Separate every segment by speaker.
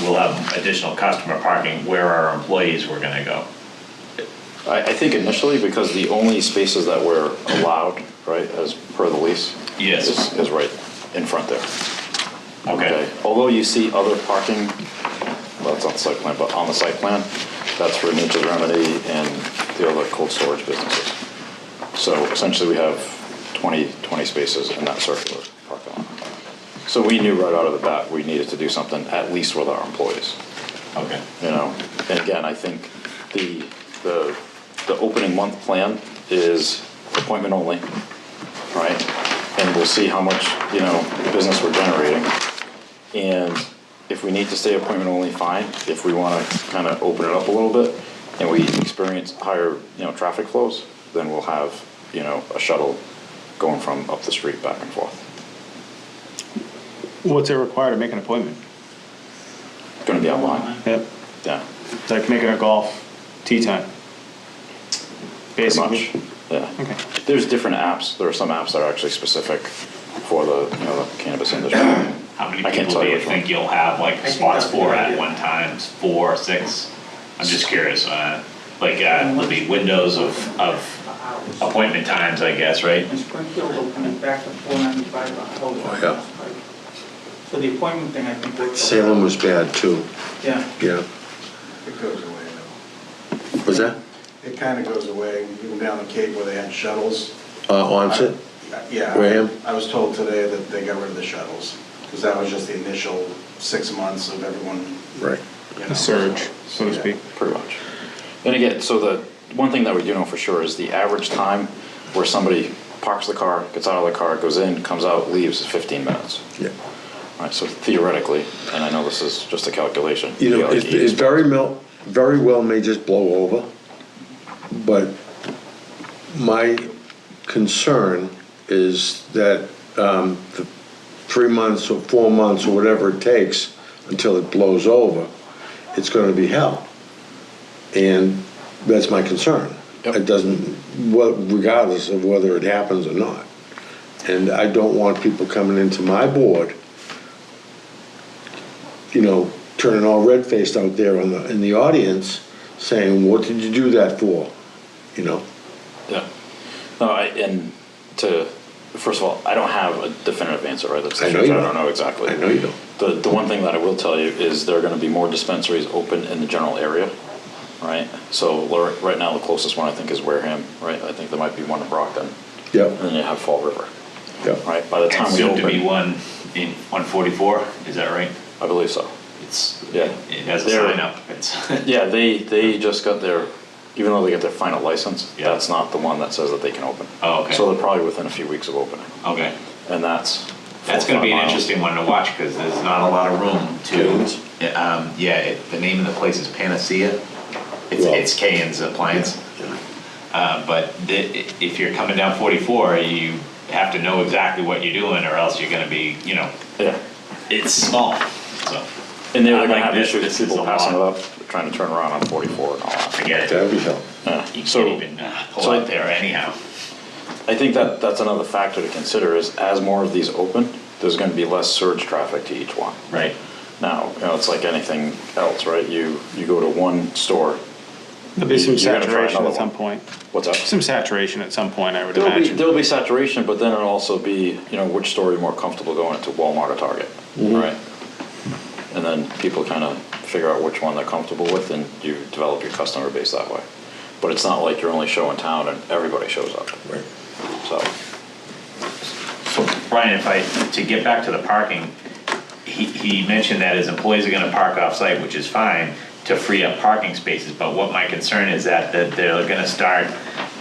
Speaker 1: we'll have additional customer parking where our employees were gonna go.
Speaker 2: I, I think initially, because the only spaces that were allowed, right, as per the lease.
Speaker 1: Yes.
Speaker 2: Is, is right in front there.
Speaker 1: Okay,
Speaker 2: Although you see other parking, well, it's on the site plan, but on the site plan, that's for Nature's Remedy and the other cold storage businesses. So essentially, we have 20, 20 spaces in that circular parking lot. So we knew right out of the bat, we needed to do something, at least with our employees
Speaker 1: okay.
Speaker 2: you know, and again, I think the, the, the opening month plan is appointment only, right? And we'll see how much, you know, business we're generating. And if we need to stay appointment only, fine. If we wanna kinda open it up a little bit and we experience higher, you know, traffic flows, then we'll have, you know, a shuttle going from up the street back and forth.
Speaker 3: What's it required to make an appointment?
Speaker 2: Gonna be online,
Speaker 3: Yep,
Speaker 2: yeah,
Speaker 3: it's like making a golf tee time.
Speaker 2: pretty
Speaker 3: Basically.
Speaker 2: much, yeah.
Speaker 3: Okay.
Speaker 2: There's different apps. There are some apps that are actually specific for the, you know, the cannabis industry.
Speaker 1: How many
Speaker 2: I can't
Speaker 1: people
Speaker 2: tell
Speaker 1: do
Speaker 2: you
Speaker 1: you
Speaker 2: which one.
Speaker 1: think you'll have, like,
Speaker 4: think
Speaker 1: spots
Speaker 4: that's
Speaker 1: for
Speaker 4: a good
Speaker 1: at
Speaker 4: idea.
Speaker 1: one time, four, six? I'm just curious, uh, like, uh,
Speaker 4: Mm-hmm.
Speaker 1: there'll be windows of, of appointment times, I guess, right?
Speaker 4: And Springfield will come back to four ninety-five on Howard.
Speaker 5: Oh, yeah.
Speaker 4: So the appointment thing, I think. works.
Speaker 5: Salem was bad too,
Speaker 4: Yeah.
Speaker 5: yeah.
Speaker 6: It goes away now.
Speaker 5: Was that
Speaker 6: It kind of goes away, even down the Cape where they had shuttles.
Speaker 5: uh, onset?
Speaker 6: Yeah.
Speaker 5: Graham?
Speaker 6: I was told today that they got rid of the shuttles, because that was just the initial six months of everyone.
Speaker 5: Right.
Speaker 6: you know,
Speaker 3: A surge, so to
Speaker 6: yeah.
Speaker 3: speak.
Speaker 2: Pretty much. And again, so the, one thing that we do know for sure is the average time where somebody parks the car, gets out of the car, goes in, comes out, leaves is 15 minutes.
Speaker 5: Yeah.
Speaker 2: Right, so theoretically, and I know this is just a calculation.
Speaker 5: You
Speaker 2: you
Speaker 5: know,
Speaker 2: get like
Speaker 5: it,
Speaker 2: eight
Speaker 5: it very mel, very well may just blow over, but my concern is that, um, the three months or four months or whatever it takes until it blows over, it's gonna be hell. And that's my concern.
Speaker 2: Yep.
Speaker 5: It doesn't, well, regardless of whether it happens or not. And I don't want people coming into my board, you know, turning all red-faced out there on the, in the audience, saying, what did you do that for? You know?
Speaker 2: Yeah. No, I, and to, first of all, I don't have a definitive answer, right? That's the
Speaker 5: I know
Speaker 2: truth.
Speaker 5: you
Speaker 2: I don't
Speaker 5: don't.
Speaker 2: know exactly.
Speaker 5: I know you don't.
Speaker 2: The, the one thing that I will tell you is there are gonna be more dispensaries open in the general area, right? So Lor- right now, the closest one I think is Wareham, right? I think there might be one in Brockton. And
Speaker 5: Yep,
Speaker 2: then you have Fall River,
Speaker 5: yep.
Speaker 2: right? By the
Speaker 1: And
Speaker 2: time we
Speaker 1: soon to be
Speaker 2: open,
Speaker 1: one in one forty-four, is that right?
Speaker 2: I believe so.
Speaker 1: It's,
Speaker 2: Yeah.
Speaker 1: it has a
Speaker 2: They're-
Speaker 1: sign up, it's,
Speaker 2: Yeah, they, they just got their, even though they got their final license,
Speaker 1: Yeah.
Speaker 2: that's not the one that says that they can open.
Speaker 1: Oh, okay.
Speaker 2: So they're probably within a few weeks of opening,
Speaker 1: okay.
Speaker 2: and that's. four
Speaker 1: That's
Speaker 2: or
Speaker 1: gonna
Speaker 2: five
Speaker 1: be an
Speaker 2: miles.
Speaker 1: interesting one to watch, cause there's not a lot of room
Speaker 5: Canes?
Speaker 1: to, um, yeah, it, the name of the place is Panacea. It's,
Speaker 5: Yeah.
Speaker 1: it's Kane's Appliance. Uh, but the, i- if you're coming down forty-four, you have to know exactly what you're doing, or else you're gonna be, you know,
Speaker 2: Yeah,
Speaker 1: it's small, so,
Speaker 2: and they're
Speaker 1: I
Speaker 2: gonna
Speaker 1: like
Speaker 2: have
Speaker 1: this.
Speaker 2: issues with
Speaker 1: This is
Speaker 2: people
Speaker 1: a
Speaker 2: passing it
Speaker 1: lot.
Speaker 2: up, trying to turn around on forty-four and all that.
Speaker 1: forget it.
Speaker 5: That'd be hell.
Speaker 1: You can't
Speaker 2: So-
Speaker 1: even uh, pull
Speaker 2: so-
Speaker 1: out there anyhow.
Speaker 2: I think that, that's another factor to consider is as more of these open, there's gonna be less surge traffic to each one.
Speaker 1: Right.
Speaker 2: Now, you know, it's like anything else, right? You, you go to one store,
Speaker 3: There'll be some
Speaker 2: You're gonna try
Speaker 3: saturation
Speaker 2: another
Speaker 3: at some
Speaker 2: one.
Speaker 3: point.
Speaker 2: what's up?
Speaker 3: Some saturation at some point, I would
Speaker 2: There'll be,
Speaker 3: imagine.
Speaker 2: there'll be saturation, but then it'll also be, you know, which store you're more comfortable going to, Walmart or Target, right? And then people kind of figure out which one they're comfortable with and you develop your customer base that way. But it's not like you're only showing town and everybody shows up,
Speaker 5: Right.
Speaker 2: so.
Speaker 1: Brian, if I, to get back to the parking, he, he mentioned that his employees are gonna park off-site, which is fine, to free up parking spaces, but what my concern is that, that they're gonna start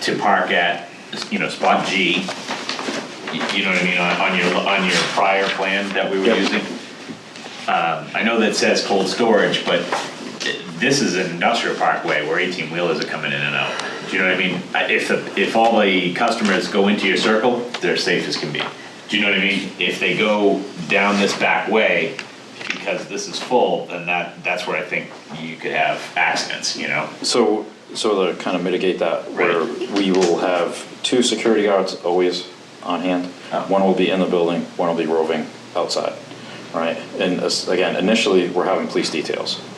Speaker 1: to park at, you know, spot G, you you know what I mean, on, on your, on your prior plan that we were
Speaker 2: Yep.
Speaker 1: using. Um, I know that says cold storage, but this is an industrial parkway where eighteen wheelers are coming in and out. Do you know what I mean? I- If, the- if all the customers go into your circle, they're safe as can be. Do you know what I mean? If they go down this back way, because this is full, then that, that's where I think you could have accidents, you know?
Speaker 2: So, so to kind of mitigate that, where
Speaker 1: Right.
Speaker 2: we will have two security guards always on hand.
Speaker 1: Oh.
Speaker 2: One will be in the building, one will be roving outside. right? And uh, again, initially, we're having police details.